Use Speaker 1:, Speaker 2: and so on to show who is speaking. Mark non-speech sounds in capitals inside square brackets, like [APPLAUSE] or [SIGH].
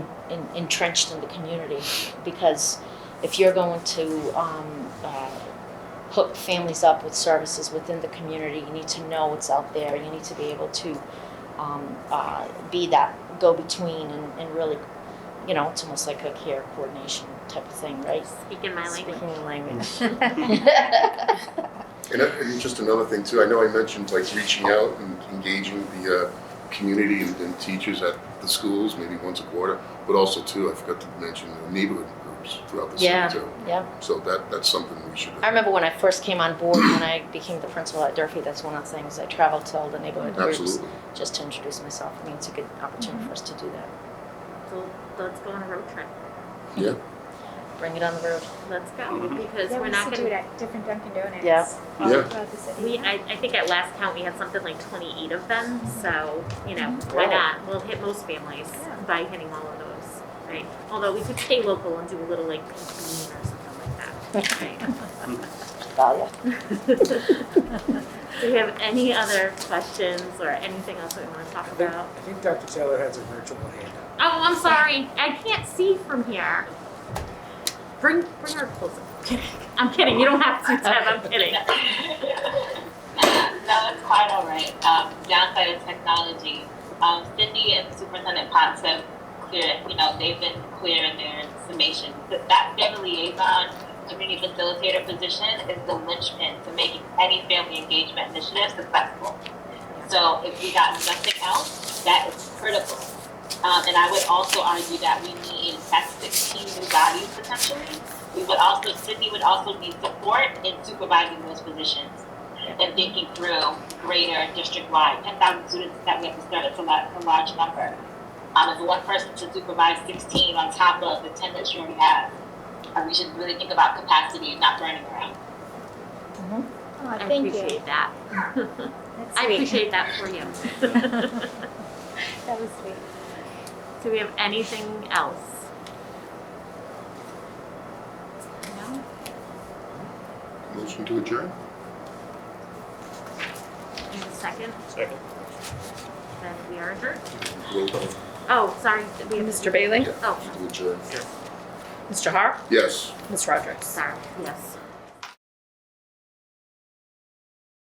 Speaker 1: entrenched in the community because if you're going to um, uh, hook families up with services within the community, you need to know what's out there. You need to be able to um, uh, be that go between and, and really, you know, it's almost like a care coordination type of thing, right?
Speaker 2: Speak in my language.
Speaker 1: Speaking in language. [LAUGHS]
Speaker 3: And, uh, and just another thing too, I know I mentioned like reaching out and engaging the uh, community and, and teachers at the schools, maybe once a quarter, but also too, I forgot to mention the neighborhood groups throughout the
Speaker 1: Yeah.
Speaker 3: city too.
Speaker 1: yeah.
Speaker 3: So that that's something we should.
Speaker 1: I remember when I first came on board, when I became the principal at Durfee, that's one of the things I traveled to all the neighborhood groups
Speaker 3: Absolutely.
Speaker 1: just to introduce myself. I mean, it's a good opportunity for us to do that.
Speaker 2: So let's go on a road trip.
Speaker 3: Yeah.
Speaker 1: Bring it on the road.
Speaker 2: Let's go
Speaker 4: Mhm.
Speaker 2: because
Speaker 5: Mm-hmm. Yeah,
Speaker 2: we're
Speaker 5: we
Speaker 2: not
Speaker 5: used to do it
Speaker 2: gonna.
Speaker 5: at different Dunkin' Donuts.
Speaker 1: Yeah.
Speaker 5: all
Speaker 3: Yeah.
Speaker 5: throughout the city.
Speaker 2: We, I, I think at last count, we had something like twenty-eight of them, so, you know, why
Speaker 1: Wow.
Speaker 2: not? We'll hit most families
Speaker 5: Mm-hmm. Yeah.
Speaker 2: by hitting all of those, right? Although we could stay local and do a little like pink bean or something like that, right?
Speaker 1: Value.
Speaker 2: Do we have any other questions or anything else that we want to talk about?
Speaker 6: I think Dr. Taylor has a virtual handout.
Speaker 2: Oh, I'm sorry. I can't see from here. Bring bring her closer. I'm kidding. You don't have to, Deb. I'm kidding.
Speaker 7: [LAUGHS] no, it's quite all right. Um, downside of technology, um, Cindy and Superintendent Potts have clear, you know, they've been clear in their summation. That that family liaison community facilitator position is the linchpin to making any family engagement initiative successful. So if we got nothing else, that is critical. Um, and I would also argue that we need at 16 new bodies potentially. We would also, Sydney would also need support in supervising those positions and thinking through greater district-wide, 10,000 students that we have to start, it's a lot, it's a large number. Um, if one person to supervise 16 on top of the 10 that you already have, uh, we should really think about capacity and not burning around.
Speaker 5: Oh,
Speaker 2: I
Speaker 5: [LAUGHS] thank you.
Speaker 2: appreciate that.
Speaker 5: That's
Speaker 2: I
Speaker 5: sweet.
Speaker 2: appreciate that for you.
Speaker 5: That was sweet.
Speaker 2: Do we have anything else? No?
Speaker 3: Motion to adjourn.
Speaker 2: In a second,
Speaker 4: Second.
Speaker 2: then we are adjourned.
Speaker 3: Roll call
Speaker 2: Oh, sorry. We have
Speaker 8: Mr. Bailey?
Speaker 2: Oh,
Speaker 3: to adjourn.
Speaker 8: Mr. Harp?
Speaker 3: Yes.
Speaker 8: Ms. Roderick?
Speaker 2: sorry. Yes.